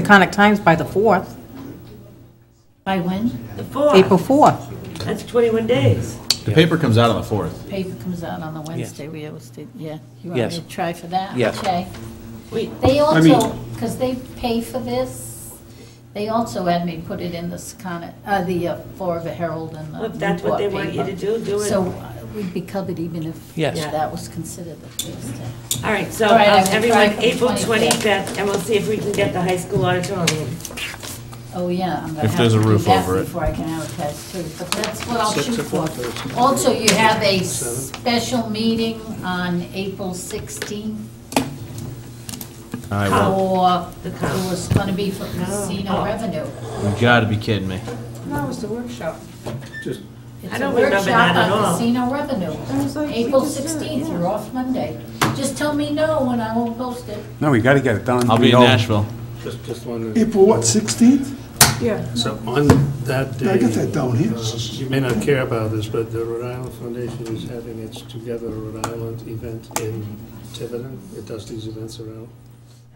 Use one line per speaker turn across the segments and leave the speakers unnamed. the Conic Times by the 4th,
By when?
The fourth,
April 4th.
that's 21 days.
The paper comes out on the fourth.
Paper comes out on the Wednesday, we always did, yeah. You want me
Yes.
to try for that?
Yes.
Okay.
Wait,
They
I mean-
also, because they pay for this, they also had me put it in the Secana, uh, the uh, Florida Herald and the
Well, if that's what they
Newport
want you to
paper.
do, do it.
So uh, we'd be covered even if
Yes.
that was considered the Thursday.
all right, so
All right, I
um,
will try
everyone,
for the
April
25th.
25th, and we'll see if we can get the high school auditorium.
Oh, yeah, I'm gonna
If
have
there's
to
a
do
roof over
that
it.
before I can advertise too, but that's what I'll shoot for. Also, you have a special meeting on April 16th
I will.
for,
The
it
comp.
was gonna be for casino revenue.
You gotta be kidding me.
No, it's the workshop.
Just,
It's
I
a
don't remember
workshop
that at all.
on casino revenue.
was like, we
April
just did it,
16th,
yeah.
you're off Monday. Just tell me no when I won't post it.
No, we gotta get it done.
I'll be in Nashville.
just, just one.
April what, 16th?
Yeah.
So on that day.
I got that down here.
uh, You may not care about this, but the Rhode Island Foundation is having its Together Rhode Island event in Tiverton. It does these events around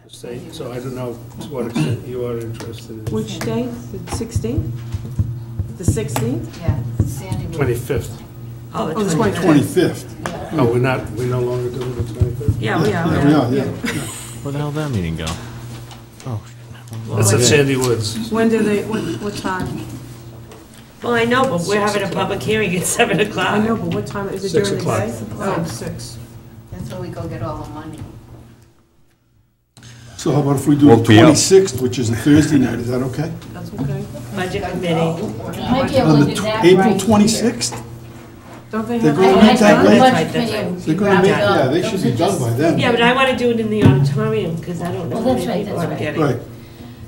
the state, so I don't know to what extent you are interested in.
Which day? The 16th? The 16th?
Yeah, Sandy will.
25th.
Oh,
Oh, it's my
25th.
25th.
Oh, we're not, we no longer doing the 25th?
Yeah, we are,
Yeah,
we
we
are.
are, yeah.
Where the hell did that meeting go?
It's at Sandy Woods.
When do they, what, what time?
Well, I know, but we're having a public hearing at 7
I know,
o'clock.
but what time, is it
Six
during the
o'clock.
day? Oh, six.
That's where we go get all the money.
So how about if we do the
Woke me up.
26th, which is a Thursday night, is that okay?
That's okay.
Budget committee.
You might be
On
able
the
to do
tw-
that
April
right here.
26th?
Don't they
They're
have?
gonna
all that
meet that
time?
late.
Budget
Right, that's
committee
right.
will be
They're gonna make,
wrapped up.
yeah, they should
Those
be
are
done
just-
by then.
Yeah, but I want to do it in the auditorium, because I don't know
Well,
how
that's
many
right,
people
that's
I'm
right.
getting.
Right,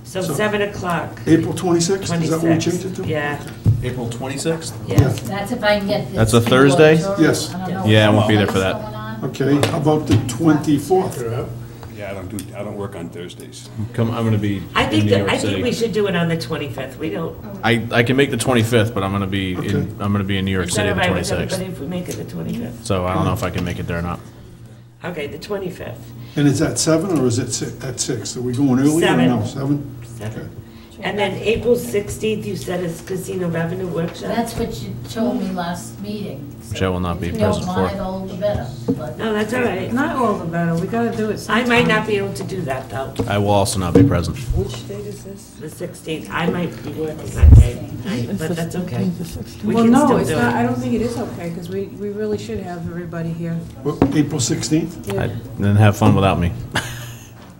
So
So-
7 o'clock,
April 26th, is that what we
26th.
changed it to?
Yeah,
April twenty-sixth?
yeah.
That's if I can get this.
That's a
through
Thursday?
auditorium.
Yes.
I don't know
Yeah, I won't be there
what's
for that.
going on.
Okay, how about the 24th?
You're out?
Yeah, I don't do, I don't work on Thursdays.
Come, I'm gonna be
I
in
think,
New
that
York
I think we
City.
should do it on the 25th. We don't,
I, I can make the twenty-fifth, but I'm gonna be
Okay.
in, I'm gonna be in New York
it's
City
not
on the
right with
twenty-sixth.
everybody if we make it the 25th.
So I don't know if I can make it there or not.
Okay, the 25th.
And is that 7 or is it si- at 6? Are we going early or no? 7?
Seven. And then April 16th, you said is casino revenue workshop?
That's what you told me last meeting. so
Which I will not be present
If you
for.
don't mind, all the better, but-
No, that's all right.
Not all the better, we gotta do it
I
sometime.
might not be able to do that, though,
I will also not be present.
the 16th. I might be working that day, I- but that's okay. We
Well,
can
no,
still
it's
do
not, I
it.
don't think it is okay, because we, we really should have everybody here.
April 16th?
I-
Yeah.
Then have fun without me.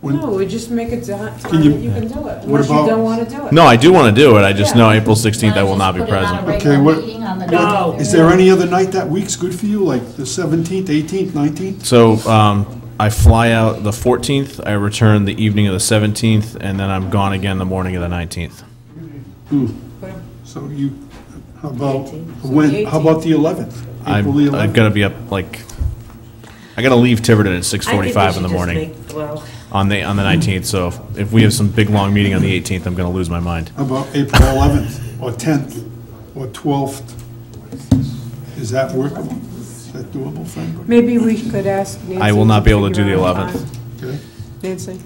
When-
No, we just make it time that
Can you-
you can do it,
What
unless you
about-
don't wanna do it.
No, I do wanna do it. I just know April
Can
sixteenth I will not be present.
just
Okay,
put it on a regular
what-
meeting on the
No.
ninth?
Is there any other night that week's good for you, like the 17th, 18th, 19th?
So, um, I fly out the fourteenth, I return the evening of the seventeenth, and then I'm gone again the morning of the nineteenth.
So you, how about,
18th.
when, how about the 11th? April the
I'm, I'm
11th?
gonna be up like, I gotta leave Tiverton at six
I think we
forty-five in the
should just
morning
make- Well,
on the, on the nineteenth, so if- if we have some big, long meeting on the eighteenth, I'm gonna lose my mind.
How about April 11th, or 10th, or 12th? Is that workable? Is that doable for anybody?
Maybe we could ask Nancy.
I will not be able to do the
figure out
11th.
a time.
Okay.
Nancy,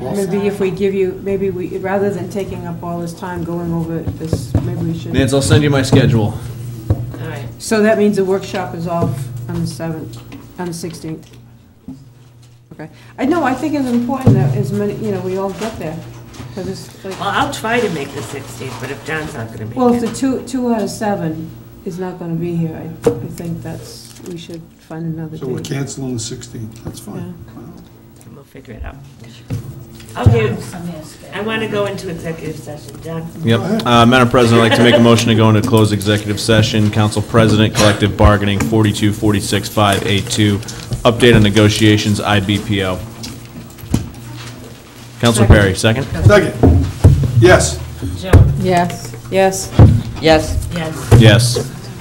maybe if we give you, maybe we, rather than taking up all this time going over this, maybe we should.
Nance, I'll send you my schedule.
all right.
So that means the workshop is off on the 7th, on the 16th. Okay. I know, I think it's important that as many, you know, we all get there, because it's
Well,
like,
I'll try to make the 16th, but if John's not going to
well, if
make it.
the two, two out of seven is not going to be here, I, I think that's, we should find another
So we're
date.
canceling the 16th, that's fine.
then We'll figure it out. Okay,
Some is good.
I want to go into executive session. John?
Yep. Uh, Madam President, I'd like to make a motion to go into closed executive session. Council President, collective bargaining, forty-two, forty-six, five, eight, two. Update on negotiations, IBPO. Councilor Perry, second?
Second, yes.
Joan?
Yes, yes.
Yes.
Yes.
Yes.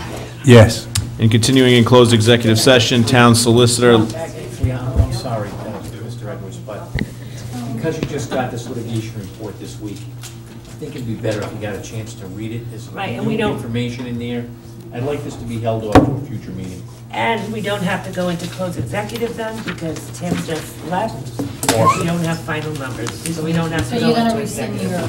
Yes.
And continuing in closed executive session, town solicitor,
Yeah, I'm I'm sorry, uh, Mr. Edwards, but because you just got this litigation report this week, I think it'd be better if you got a chance to read it. There's
Right, and we
new
don't-
information in there. I'd like this to be held off to a future meeting.
And we don't have to go into closed executive then because Tim just left.
because we don't have final numbers, so we don't have
So
to
you're
go
gonna
into
rescind
executive.
your